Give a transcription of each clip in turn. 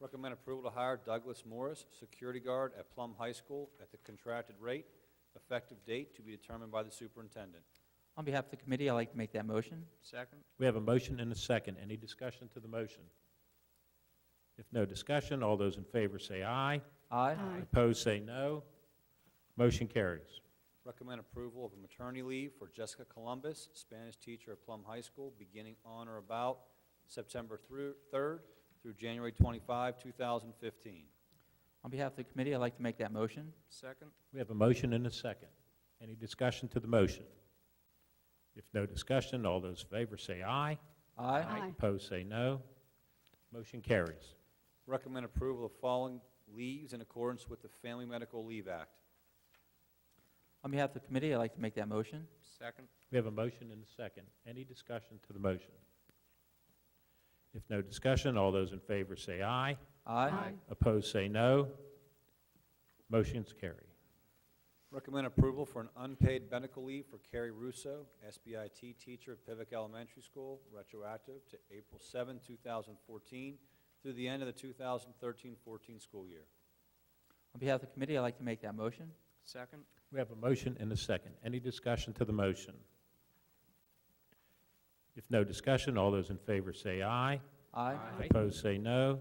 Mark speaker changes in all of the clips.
Speaker 1: Recommend approval to hire Douglas Morris, security guard at Plum High School, at the contracted rate, effective date to be determined by the superintendent.
Speaker 2: On behalf of the committee, I'd like to make that motion.
Speaker 3: second,
Speaker 4: We have a motion and a second. Any discussion to the motion? If no discussion, all those in favor say aye.
Speaker 2: Aye.
Speaker 4: Opposed, say no. Motion carries.
Speaker 1: Recommend approval of a maternity leave for Jessica Columbus, Spanish teacher at Plum High School, beginning on or about September through, 3rd through January 25, 2015.
Speaker 2: On behalf of the committee, I'd like to make that motion.
Speaker 3: second,
Speaker 4: We have a motion and a second. Any discussion to the motion? If no discussion, all those in favor say aye.
Speaker 2: Aye.
Speaker 4: Opposed, say no. Motion carries.
Speaker 1: Recommend approval of following leaves in accordance with the Family Medical Leave Act.
Speaker 2: On behalf of the committee, I'd like to make that motion.
Speaker 3: second,
Speaker 4: We have a motion and a second. Any discussion to the motion? If no discussion, all those in favor say aye.
Speaker 2: Aye.
Speaker 4: Opposed, say no. Motion's carry.
Speaker 1: Recommend approval for an unpaid medical leave for Carrie Russo, SBIT teacher at Pivot Elementary School, retroactive to April 7, 2014, through the end of the 2013-14 school year.
Speaker 2: On behalf of the committee, I'd like to make that motion.
Speaker 3: second,
Speaker 4: We have a motion and a second. Any discussion to the motion? If no discussion, all those in favor say aye.
Speaker 2: Aye.
Speaker 3: Aye.
Speaker 4: Opposed, say no.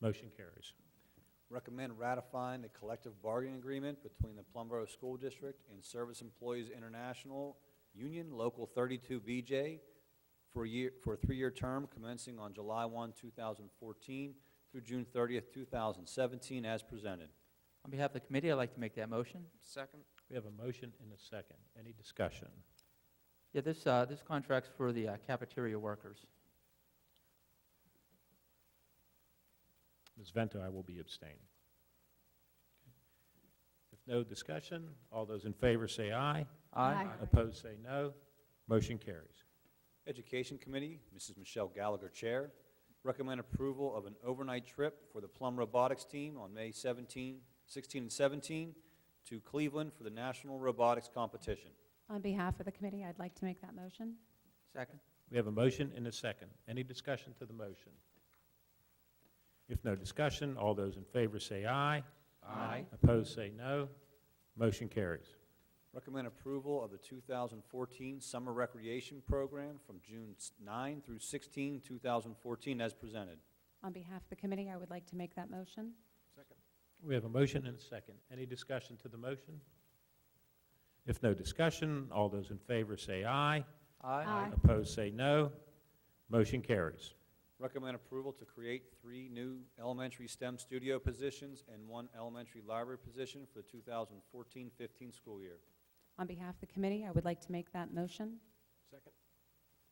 Speaker 4: Motion carries.
Speaker 1: Recommend ratifying the collective bargaining agreement between the Plumboro School District and Service Employees International Union Local 32BJ for a year, for a three-year term commencing on July 1, 2014 through June 30, 2017, as presented.
Speaker 2: On behalf of the committee, I'd like to make that motion.
Speaker 3: second,
Speaker 4: We have a motion and a second. Any discussion?
Speaker 2: Yeah, this, uh, this contract's for the uh, cafeteria workers.
Speaker 4: Ms. Vento, I will be abstaining. If no discussion, all those in favor say aye.
Speaker 2: Aye.
Speaker 4: Opposed, say no. Motion carries.
Speaker 1: Education Committee, Mrs. Michelle Gallagher, Chair, recommend approval of an overnight trip for the Plum Robotics Team on May 17, 16 and 17 to Cleveland for the National Robotics Competition.
Speaker 5: On behalf of the committee, I'd like to make that motion.
Speaker 2: Second.
Speaker 4: We have a motion and a second. Any discussion to the motion? If no discussion, all those in favor say aye.
Speaker 2: Aye.
Speaker 4: Opposed, say no. Motion carries.
Speaker 1: Recommend approval of the 2014 Summer Recreation Program from June s- 9 through 16, 2014, as presented.
Speaker 5: On behalf of the committee, I would like to make that motion.
Speaker 4: We have a motion and a second. Any discussion to the motion? If no discussion, all those in favor say aye.
Speaker 5: Aye.
Speaker 4: Opposed, say no. Motion carries.
Speaker 1: Recommend approval to create three new elementary STEM studio positions and one elementary library position for the 2014-15 school year.
Speaker 5: On behalf of the committee, I would like to make that motion.
Speaker 3: second,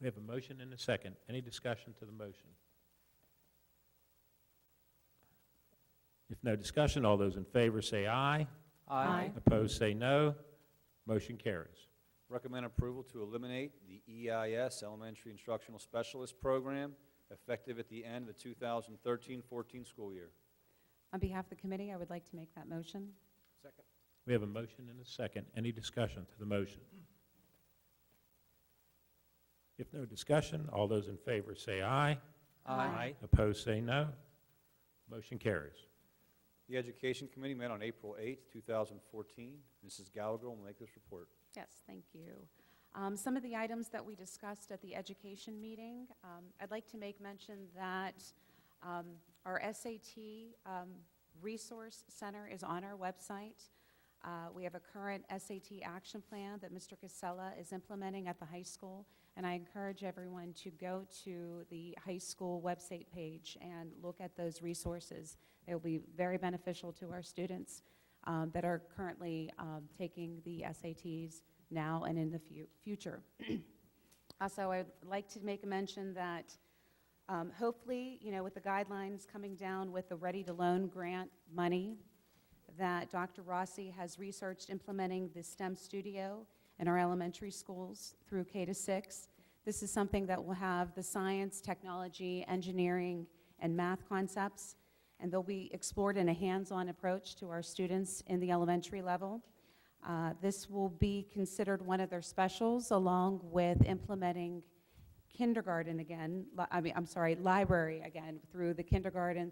Speaker 4: We have a motion and a second. Any discussion to the motion? If no discussion, all those in favor say aye.
Speaker 5: Aye.
Speaker 4: Opposed, say no. Motion carries.
Speaker 1: Recommend approval to eliminate the EIS Elementary Instructional Specialist Program effective at the end of the 2013-14 school year.
Speaker 5: On behalf of the committee, I would like to make that motion.
Speaker 3: second,
Speaker 4: We have a motion and a second. Any discussion to the motion? If no discussion, all those in favor say aye.
Speaker 5: Aye.
Speaker 4: Opposed, say no. Motion carries.
Speaker 1: The Education Committee met on April 8, 2014. Mrs. Gallagher will make this report.
Speaker 5: Yes, thank you. Um, Some of the items that we discussed at the education meeting, um, I'd like to make mention that um, our SAT um, Resource Center is on our website. Uh, We have a current SAT action plan that Mr. Casella is implementing at the high school, and I encourage everyone to go to the high school website page and look at those resources. They will be very beneficial to our students um, that are currently um, taking the SATs now and in the fu- future. Also, I'd like to make a mention that um, hopefully, you know, with the guidelines coming down with the Ready to Loan grant money, that Dr. Rossi has researched implementing the STEM studio in our elementary schools through K to 6. This is something that will have the science, technology, engineering, and math concepts, and they'll be explored in a hands-on approach to our students in the elementary level. Uh, This will be considered one of their specials, along with implementing kindergarten again, li- I mean, I'm sorry, library again, through the kindergarten,